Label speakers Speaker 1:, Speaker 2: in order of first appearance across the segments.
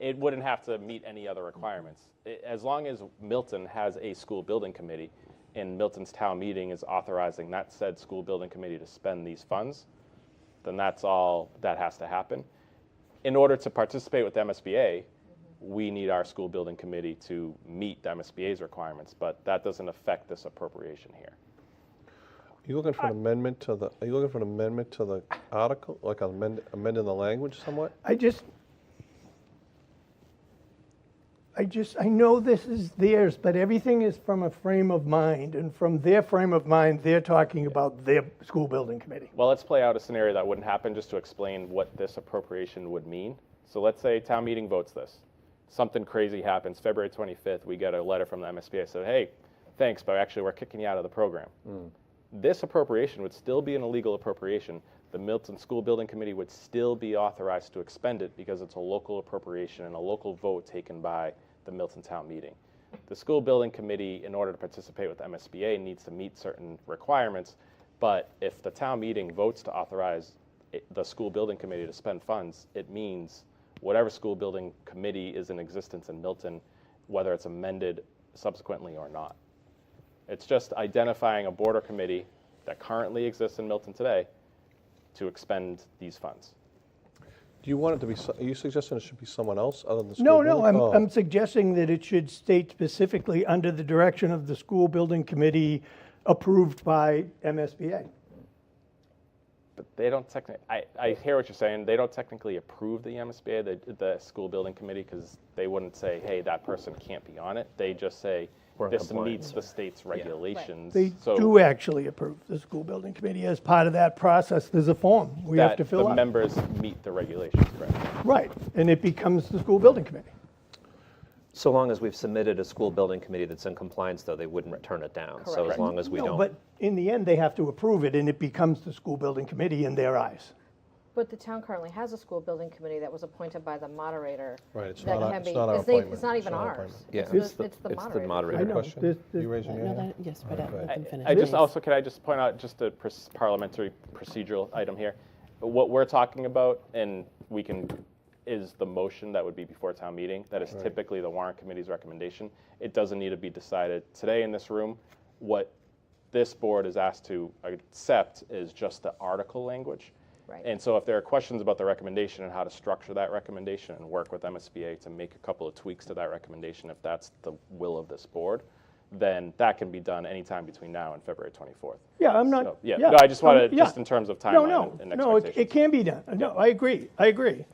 Speaker 1: it wouldn't have to meet any other requirements. I- As long as Milton has a school building committee and Milton's town meeting is authorizing that said school building committee to spend these funds, then that's all that has to happen. In order to participate with MSBA, we need our school building committee to meet the MSBA's requirements, but that doesn't affect this appropriation here.
Speaker 2: You looking for an amendment to the, are you looking for an amendment to the article, like amend, amending the language somewhat?
Speaker 3: I just, I just, I know this is theirs, but everything is from a frame of mind, and from their frame of mind, they're talking about their school building committee.
Speaker 1: Well, let's play out a scenario that wouldn't happen just to explain what this appropriation would mean. So let's say town meeting votes this. Something crazy happens. February 25th, we get a letter from the MSBA said, hey, thanks, but actually we're kicking you out of the program. This appropriation would still be an illegal appropriation. The Milton School Building Committee would still be authorized to expend it because it's a local appropriation and a local vote taken by the Milton Town Meeting. The school building committee, in order to participate with MSBA, needs to meet certain requirements. But if the town meeting votes to authorize it- the school building committee to spend funds, it means whatever school building committee is in existence in Milton, whether it's amended subsequently or not. It's just identifying a border committee that currently exists in Milton today to expend these funds.
Speaker 2: Do you want it to be, so- are you suggesting it should be someone else other than the school
Speaker 3: No,
Speaker 2: building?
Speaker 3: no, I'm,
Speaker 2: Oh.
Speaker 3: I'm suggesting that it should state specifically under the direction of the school building committee approved by MSBA.
Speaker 1: But they don't technically, I, I hear what you're saying, they don't technically approve the MSBA, the, the school building committee, because they wouldn't say, hey, that person can't be on it. They just say,
Speaker 4: We're in
Speaker 1: this
Speaker 4: compliance."
Speaker 1: meets the state's regulations.
Speaker 3: They
Speaker 1: So
Speaker 3: do actually approve the school building committee. As part of that process, there's a form we have
Speaker 1: that
Speaker 3: to fill
Speaker 1: the
Speaker 3: out.
Speaker 1: members meet the regulations, correct?
Speaker 3: Right, and it becomes the school building committee.
Speaker 4: So long as we've submitted a school building committee that's in compliance, though, they wouldn't turn it down. So as
Speaker 5: Correct.
Speaker 4: long as we
Speaker 3: No,
Speaker 4: don't.
Speaker 3: But in the end, they have to approve it, and it becomes the school building committee in their eyes.
Speaker 5: But the town currently has a school building committee that was appointed by the moderator.
Speaker 2: Right, it's
Speaker 5: that
Speaker 2: not our-
Speaker 5: can
Speaker 2: it's
Speaker 5: be-
Speaker 2: not our
Speaker 5: they-
Speaker 2: appointment.
Speaker 5: It's not
Speaker 2: It's
Speaker 5: even
Speaker 2: not our
Speaker 5: ours.
Speaker 2: appointment.
Speaker 4: Yeah,
Speaker 5: It's the, it's the
Speaker 4: it's the
Speaker 5: moderator.
Speaker 3: I know.
Speaker 4: moderator.
Speaker 2: Question?
Speaker 3: This- this-
Speaker 2: You raising your
Speaker 6: No,
Speaker 2: hand?
Speaker 6: that- Yes, but I- let them finish.
Speaker 1: I just
Speaker 6: please.
Speaker 1: also, could I just point out just a pers- parliamentary procedural item here? What we're talking about, and we can, is the motion that would be before town meeting. That is typically the warrant committee's recommendation. It doesn't need to be decided today in this room. What this board is asked to accept is just the article language.
Speaker 5: Right.
Speaker 1: And so if there are questions about the recommendation and how to structure that recommendation and work with MSBA to make a couple of tweaks to that recommendation, if that's the will of this board, then that can be done anytime between now and February 24th.
Speaker 3: Yeah, I'm not.
Speaker 1: So, yeah, no, I just
Speaker 3: I'm-
Speaker 1: wanna-
Speaker 3: yeah.
Speaker 1: just in terms of
Speaker 3: No,
Speaker 1: timeline
Speaker 3: no,
Speaker 1: and
Speaker 3: no, it- it
Speaker 1: expectations.
Speaker 3: can be done. No, I agree, I agree.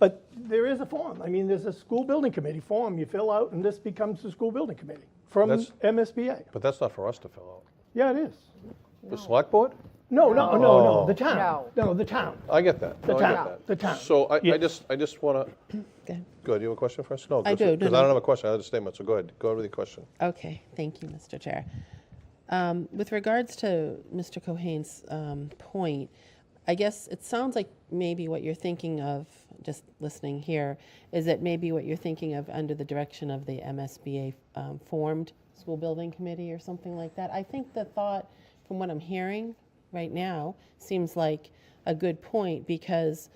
Speaker 3: But there is a form. I mean, there's a school building committee form you fill out, and this becomes the school building committee from
Speaker 2: That's-
Speaker 3: MSBA.
Speaker 2: But that's not for us to fill
Speaker 3: Yeah, it is.
Speaker 2: out. The select board?
Speaker 3: No, no, no, no,
Speaker 2: Oh.
Speaker 3: the town. No, the town.
Speaker 2: I get that. No, I get
Speaker 3: town,
Speaker 2: that.
Speaker 3: the town.
Speaker 2: So I, I
Speaker 3: Yes.
Speaker 2: just, I just want to,
Speaker 6: Okay.
Speaker 2: Good. You have a question for us? No.
Speaker 6: I do, no,
Speaker 2: Because I
Speaker 6: no.
Speaker 2: don't have a question. I had a statement. So go ahead. Go ahead with your question.
Speaker 6: Okay, thank you, Mr. Chair. Um, With regards to Mr. Cohen's um, point, I guess it sounds like maybe what you're thinking of, just listening here, is that maybe what you're thinking of under the direction of the MSBA um, formed school building committee or something like that. I think the thought, from what I'm hearing right now, seems like a good point because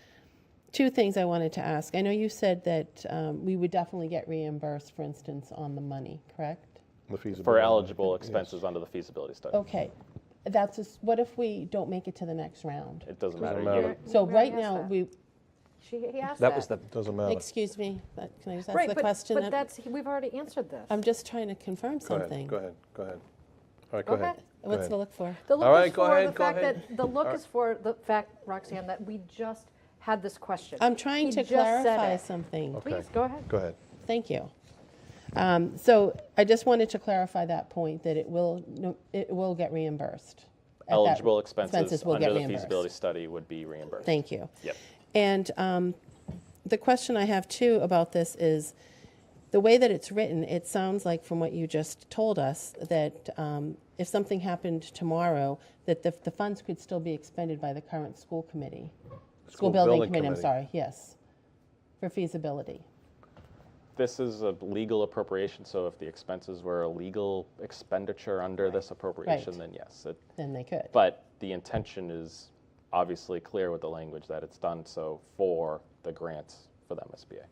Speaker 6: two things I wanted to ask. I know you said that um, we would definitely get reimbursed, for instance, on the money, correct?
Speaker 2: The feasibility.
Speaker 1: For eligible expenses under the feasibility study.
Speaker 6: Okay, that's just, what if we don't make it to the next round?
Speaker 1: It doesn't
Speaker 2: Doesn't
Speaker 1: matter.
Speaker 2: matter.
Speaker 1: You-
Speaker 6: So
Speaker 5: We
Speaker 6: right
Speaker 5: already
Speaker 6: now,
Speaker 5: asked that.
Speaker 6: we,
Speaker 5: She, he asked that.
Speaker 4: That was the,
Speaker 2: Doesn't matter.
Speaker 6: excuse me, that- can I just ask
Speaker 5: Right,
Speaker 6: the
Speaker 5: but,
Speaker 6: question?
Speaker 5: but
Speaker 6: I'm-
Speaker 5: that's, we've already answered this.
Speaker 6: I'm just trying to confirm
Speaker 2: go ahead.
Speaker 6: something.
Speaker 2: Go ahead. Go ahead. All right. Go
Speaker 5: Okay.
Speaker 2: ahead. Go
Speaker 6: What's
Speaker 2: ahead.
Speaker 6: to look for?
Speaker 5: The look
Speaker 2: All right,
Speaker 5: is
Speaker 2: go
Speaker 5: for
Speaker 2: ahead,
Speaker 5: the
Speaker 2: go
Speaker 5: fact
Speaker 2: ahead.
Speaker 5: that the look is for the fact, Roxanne, that we just had this question.
Speaker 6: I'm trying
Speaker 5: He
Speaker 6: to
Speaker 5: just said
Speaker 6: clarify
Speaker 5: it.
Speaker 6: something.
Speaker 2: Okay.
Speaker 5: Please go ahead.
Speaker 2: Go ahead.
Speaker 6: Thank you. Um, So I just wanted to clarify that point, that it will, no, it will get reimbursed. at that-
Speaker 1: Eligible expenses
Speaker 6: will get
Speaker 1: under the
Speaker 6: reimbursed.
Speaker 1: feasibility study would be reimbursed.
Speaker 6: Thank you.
Speaker 1: Yep.
Speaker 6: And um, the question I have too about this is, the way that it's written, it sounds like from what you just told us, that um, if something happened tomorrow, that the, the funds could still be expended by the current school committee.
Speaker 2: School
Speaker 6: building
Speaker 2: building
Speaker 6: committee, I'm
Speaker 2: committee.
Speaker 6: sorry, yes, for feasibility.
Speaker 1: This is a legal appropriation, so if the expenses were a legal expenditure under this appropriation, then yes. it-
Speaker 6: Then they could.
Speaker 1: But the intention is obviously clear with the language that it's done so for the grants for the MSBA.